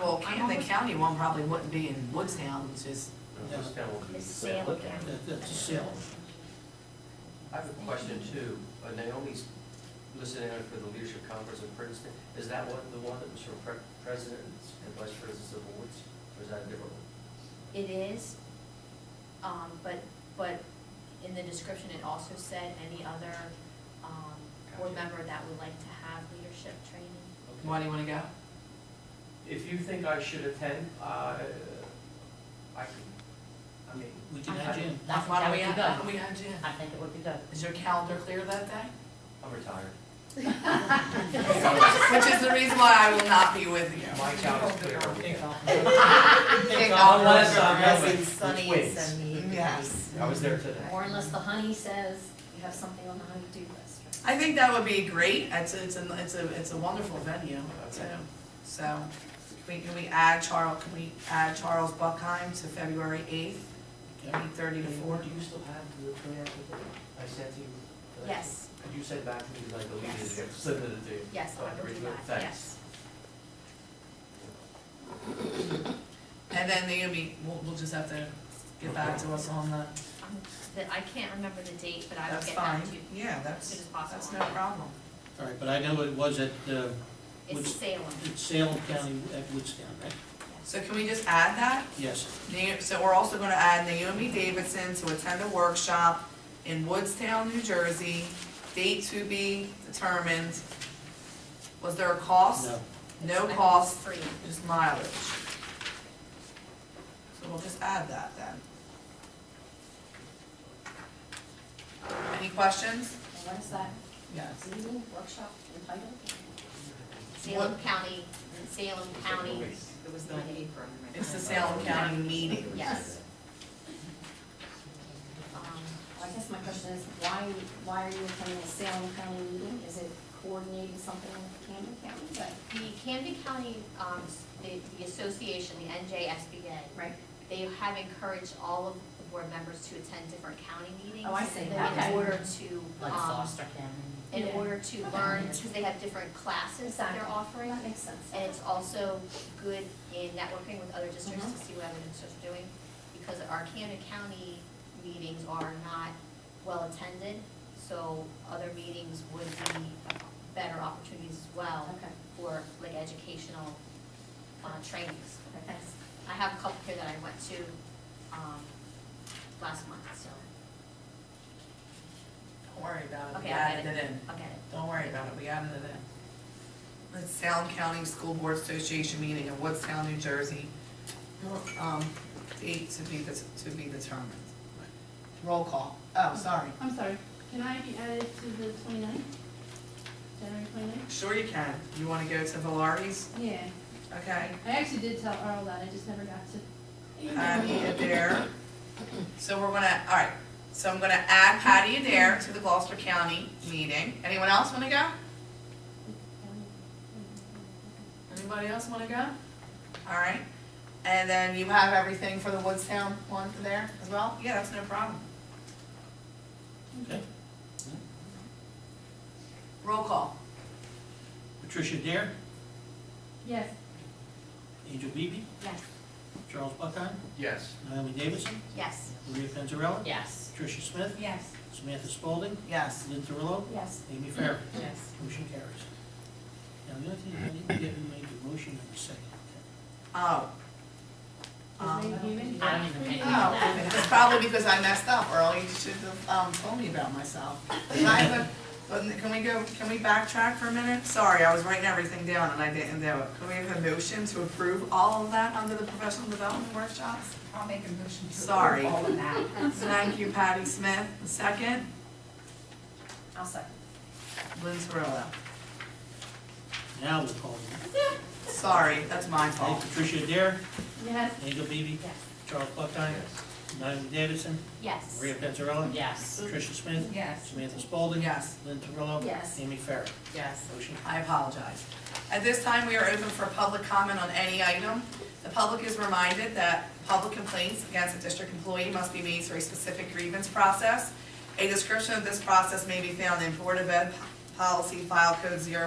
Well, I the almost- county one probably wouldn't be in Woodstown, it's just, No, This town will be. It's Salem County. That- That's a sale. I have a question too. Uh, Naomi's listening in for the Leadership Conference in Princeton. Is that one, the one that was for pre- presidents and vice presidents of boards? Or is that a different one? It is, um, but, but in the description, it also said any other, um, board Gotcha. member that would like to have leadership training. Okay. why do you wanna go? If you think I should attend, uh, I can, I mean, We can add in. That's Why why don't we we, have why don't done. we add Jen? I think it would be good. Is your calendar clear that day? I'm retired. Which is the reason why I will not be with you. My job is clear on weekends. Take off. Unless I'm Unless going it's with sunny and twins. sunny. Yes. I was there today. Or unless the honey says you have something on the honey-do list. I think that would be great, it's, it's, a- it's a, it's a wonderful venue, too. Okay. So, we, can we add Charles, can we add Charles Buckheim to February eighth, eight thirty to four? Do you still have the plan I sent you? uh, Yes, You sent back to me, like, the lead Yes. is, send it to you. yes, I will do Original, that, thanks. yes. And then Naomi, we'll, we'll just have to get back to us on the, Um, That, I can't remember the date, but I will that's get fine. back to you Yeah, as soon as that's, that's no possible. problem. All right, but I know it was at, uh, It's Which- Salem, at Salem County, at Woodstown, right? So can we just add that? Yes. Na- So we're also gonna add Naomi Davidson to attend a workshop in Woodstown, New Jersey, date to be determined. Was there a cost? No. No cost, free. just mileage. So we'll just add that then. Any questions? What is that, Yes. meeting, workshop, entitled? Salem County, Salem County, It was the apron. It's the Salem County meeting. yes. Um, Well, I guess my question is, why, why are you attending a Salem County meeting? Is it coordinating something with Camden County? But, The Camden County, um, the, the association, the NJSBA, right, they have encouraged all of the board members to attend different county meetings. Oh, I see. In Okay. order to, um, County. in order to Okay. learn, because they have different classes that they're Exactly. offering. That makes sense. And it's also good in networking with other districts Mm-hmm. to see what other districts are doing, because our Camden County meetings are not well attended, so other meetings would be better opportunities as well Okay, for like educational, uh, trainings. okay, thanks. I have a couple here that I went to, um, last month, so Don't worry about it, we Okay, I added get it. it in. I'll get it. Don't worry about it, we added it in. The Salem County School Board Association meeting in Woodstown, New Jersey. Um, date to be, det- to be determined. Roll call. Oh, sorry. I'm sorry, can I be added to the 29th? January 29th? Sure you can. You wanna go to Valari's? Yeah, Okay. I actually did tell Earl that, I just never got to. Patty Adair. So we're gonna, all right, so I'm gonna add Patty Adair to the Gloucester County meeting. Anyone else wanna go? Anybody else wanna go? All right, and then you have everything for the Woodstown one there as well? Yeah, that's no problem. Okay. Roll call. Patricia Dare, Yes, Angel Beebe, Yes. Charles Buckheim, Yes. Naomi Davidson, Yes. Maria Panzarella, Yes. Patricia Smith, Yes. Samantha Spalding, Yes. Lynn Thurlow, Yes. Amy Farah. Yes. Motion carries. Now, the other thing, I didn't get who made the motion in the second. Oh. his name Um, Human? I don't even think Oh, it's probably because I messed up, Earl, you should have, um, told me about myself. Can I have a- can we go, can we backtrack for a minute? Sorry, I was writing everything down and I didn't do it. Can we have a motion to approve all of that under the professional development workshops? I'll make a motion to. Sorry. All of that. Thank you, Patty Smith, second, I'll second. Lynn Terrell. Now we'll call them. Sorry, that's my Okay, fault. Patricia Dare, yes, Angel Beebe, Yes. Charles Buckheim, Naomi Davidson, Yes. Maria Panzarella, Yes. Patricia Smith, Yes. Samantha Spalding. Yes. Lynn Terrell. Yes. Amy Farah. Yes. Motion I apologize. At this time, we are open for public comment on any item. The public is reminded that public complaints against a district employee must be made through a specific grievance process. A description of this process may be found in Board of Ed Policy File Code 01.